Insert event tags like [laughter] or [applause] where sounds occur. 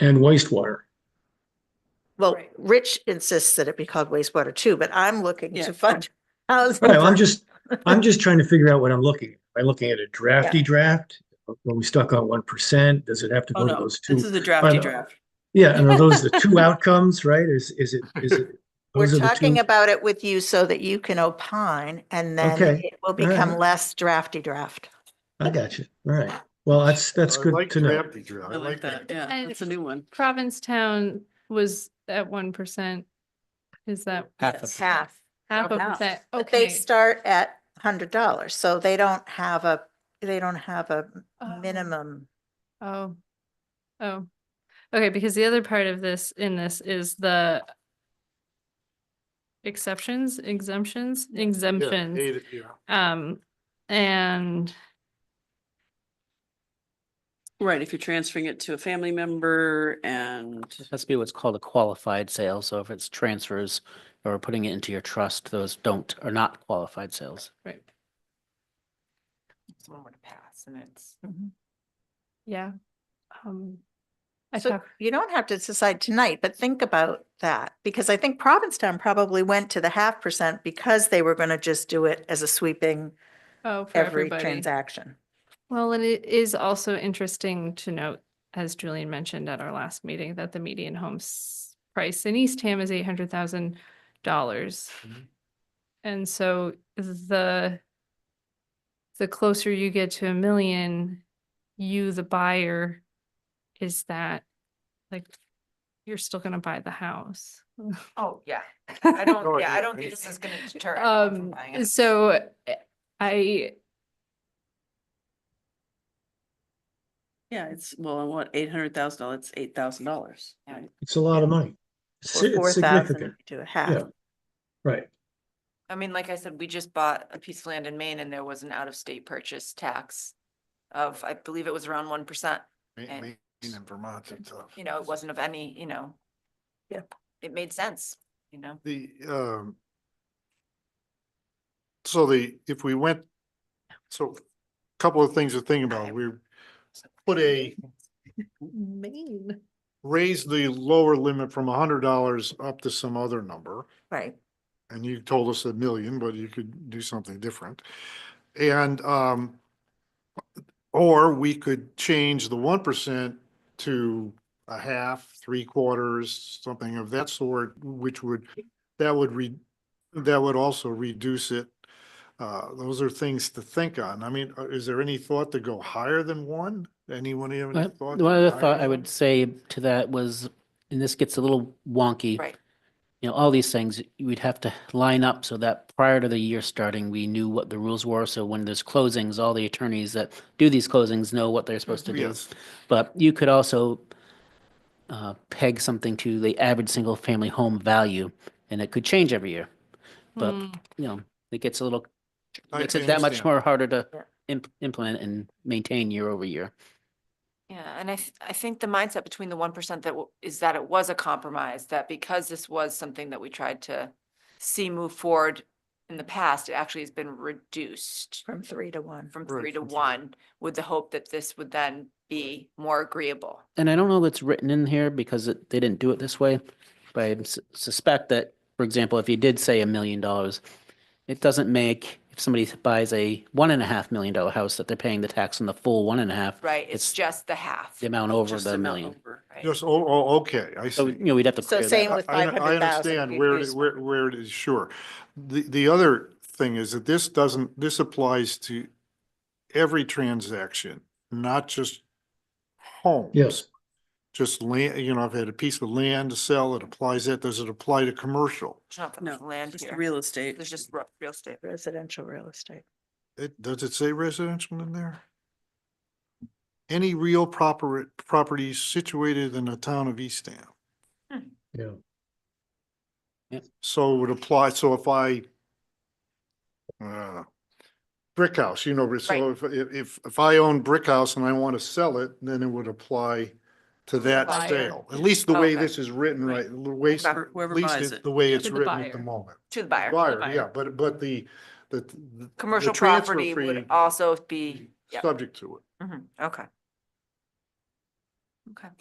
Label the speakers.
Speaker 1: and wastewater.
Speaker 2: Well,
Speaker 3: Right.
Speaker 2: Rich insists that it be called wastewater too, but I'm looking
Speaker 3: Yeah.
Speaker 2: to [laughs] fund. housing.
Speaker 1: Right, I'm just, I'm just trying to figure out what I'm looking, at. am I looking at a drafty
Speaker 2: Yeah.
Speaker 1: draft? Are we stuck on one percent? Does it have to
Speaker 3: Oh,
Speaker 1: go to
Speaker 3: no,
Speaker 1: those
Speaker 3: this
Speaker 1: two?
Speaker 3: is a drafty
Speaker 1: know.
Speaker 3: draft.
Speaker 1: Yeah, and are those the
Speaker 2: [laughs]
Speaker 1: two outcomes, right? Is, is it, is it? those
Speaker 2: We're
Speaker 1: are the
Speaker 2: talking
Speaker 1: two-
Speaker 2: about it with you so that you can opine and then
Speaker 1: Okay.
Speaker 2: it will
Speaker 1: right.
Speaker 2: become less drafty draft.
Speaker 1: I got you. All right. Well, that's, that's
Speaker 4: I
Speaker 1: good
Speaker 4: like
Speaker 1: to know.
Speaker 4: drafty drill.
Speaker 3: I like that, yeah,
Speaker 5: And-
Speaker 3: that's a new one.
Speaker 5: Provincetown was at one percent. Is that
Speaker 6: Half of,
Speaker 2: half.
Speaker 5: half of
Speaker 3: half.
Speaker 5: that?
Speaker 2: But they
Speaker 5: Okay.
Speaker 2: start at hundred dollars, so they don't have a, they don't have a
Speaker 5: Oh.
Speaker 2: minimum.
Speaker 5: Oh, oh, okay, because the other part of this, in this is the exceptions, exemptions, exemptions,
Speaker 4: hate it, yeah.
Speaker 5: um, and
Speaker 3: Right, if you're transferring it to a family member and,
Speaker 6: it has to be what's called a qualified sale. So if it's transfers or putting it into your trust, those don't, are not qualified sales.
Speaker 5: right,
Speaker 7: someone would pass and it's.
Speaker 5: yeah. Um, I
Speaker 2: So
Speaker 5: talk,
Speaker 2: you don't have to decide tonight, but think about that, because I think Provincetown probably went to the half percent because they were gonna just do it as a sweeping
Speaker 5: oh, for
Speaker 2: every
Speaker 5: everybody.
Speaker 2: transaction.
Speaker 5: Well, and it is also interesting to note, as Julian mentioned at our last meeting, that the median home s- price in Eastham is eight hundred thousand dollars. And so the the closer you get to a million, you, the buyer, is that like you're still gonna buy the house.
Speaker 7: Oh, yeah. I
Speaker 4: [laughs] Oh,
Speaker 7: don't, yeah,
Speaker 4: yeah,
Speaker 7: I don't
Speaker 4: right.
Speaker 7: think this is gonna deter. anyone from
Speaker 5: Um,
Speaker 7: buying it.
Speaker 5: so uh, I,
Speaker 3: yeah, it's, well, and what, eight hundred thousand dollars, it's eight thousand dollars.
Speaker 7: Yeah.
Speaker 1: It's a lot of money. It's
Speaker 2: Or four
Speaker 1: it's
Speaker 2: thousand
Speaker 1: significant,
Speaker 2: to a
Speaker 1: yeah.
Speaker 2: half.
Speaker 1: Right,
Speaker 7: I mean, like I said, we just bought a piece of land in Maine and there was an out-of-state purchase tax of, I believe it was around one percent.
Speaker 4: Maine,
Speaker 7: And-
Speaker 4: Maine and Vermont's and stuff.
Speaker 7: You know, it wasn't of any, you know.
Speaker 2: Yeah.
Speaker 7: It made sense, you know?
Speaker 4: The, um. So the, if we went, so a couple of things to think about, we put a,
Speaker 5: Maine.
Speaker 4: raise the lower limit from a hundred dollars up to some other number.
Speaker 2: Right.
Speaker 4: and you told us a million, but you could do something different. And, um, or we could change the one percent to a half, three quarters, something of that sort, which would, that would re, that would also reduce it. Uh, those are things to think on. I mean, uh, is there any thought to go higher than one? Anyone have any
Speaker 6: Well,
Speaker 4: thought? to
Speaker 6: One
Speaker 4: higher
Speaker 6: other thought
Speaker 4: than
Speaker 6: I
Speaker 4: one?
Speaker 6: would say to that was, and this gets a little wonky.
Speaker 7: Right.
Speaker 6: You know, all these things, we'd have to line up so that prior to the year starting, we knew what the rules were. So when there's closings, all the attorneys that do these closings know what they're supposed to do.
Speaker 4: Yes.
Speaker 6: But you could also uh, peg something to the average single-family home value, and it could change every year. But,
Speaker 5: Hmm.
Speaker 6: you know, it gets a little,
Speaker 4: I
Speaker 6: makes
Speaker 4: can
Speaker 6: it that much
Speaker 4: understand.
Speaker 6: more harder to
Speaker 2: Yeah.
Speaker 6: imp- implement and maintain year over year.
Speaker 7: Yeah, and I, th- I think the mindset between the one percent that w- is that it was a compromise, that because this was something that we tried to see move forward in the past, it actually has been reduced
Speaker 2: From three to one.
Speaker 7: from
Speaker 4: Right,
Speaker 7: three to
Speaker 4: from three.
Speaker 7: one with the hope that this would then be more agreeable.
Speaker 6: And I don't know that's written in here because it, they didn't do it this way, but I sus- suspect that, for example, if you did say a million dollars, it doesn't make, if somebody buys a one and a half million dollar house, that they're paying the tax on the full one and a half,
Speaker 7: Right, it's
Speaker 6: It's
Speaker 7: just the half.
Speaker 6: the amount over
Speaker 3: Just
Speaker 6: the
Speaker 3: amount
Speaker 6: million.
Speaker 3: over.
Speaker 7: right?
Speaker 4: Just, oh, oh, okay, I see.
Speaker 6: So, you know, we'd have to
Speaker 2: So
Speaker 6: clear
Speaker 2: same
Speaker 6: that
Speaker 2: with
Speaker 4: I- I un-
Speaker 2: 500,000
Speaker 4: I understand
Speaker 2: would
Speaker 4: where,
Speaker 2: be
Speaker 4: it- where, where it is, sure. The, the other thing is that this doesn't, this applies to every transaction, not just homes.
Speaker 1: yes,
Speaker 4: Just land, you know, I've had a piece of land to sell, it applies that, does it apply to commercial?
Speaker 7: It's not that
Speaker 3: No,
Speaker 7: much land
Speaker 3: just
Speaker 7: here.
Speaker 3: real estate.
Speaker 7: There's just ru- real estate.
Speaker 2: Residential real estate.
Speaker 4: It, does it say residential in there? Any real proper, property situated in the town of Eastham?
Speaker 1: yeah.
Speaker 4: So it would apply, so if I, uh, brick house, you know, so if, if, if- if I own brick house and I want to sell it, then it would apply to that
Speaker 7: Buyer.
Speaker 4: sale. At least the way
Speaker 7: Okay.
Speaker 4: this is written,
Speaker 3: Right.
Speaker 4: right, the way, it's-
Speaker 7: Exactly.
Speaker 4: at
Speaker 3: Whoever- Whoever
Speaker 4: least
Speaker 3: buys
Speaker 4: it-
Speaker 3: it.
Speaker 4: the way it's
Speaker 5: To the
Speaker 4: written at the
Speaker 5: buyer.
Speaker 4: moment.
Speaker 7: To the buyer.
Speaker 4: Buyer,
Speaker 5: buyer.
Speaker 4: yeah, but, but the, the. the- the
Speaker 7: Commercial
Speaker 4: transfer
Speaker 7: property would
Speaker 4: fee
Speaker 7: also be, yeah, Mm-hmm,
Speaker 4: Subject to it.
Speaker 7: mhm, okay. Okay.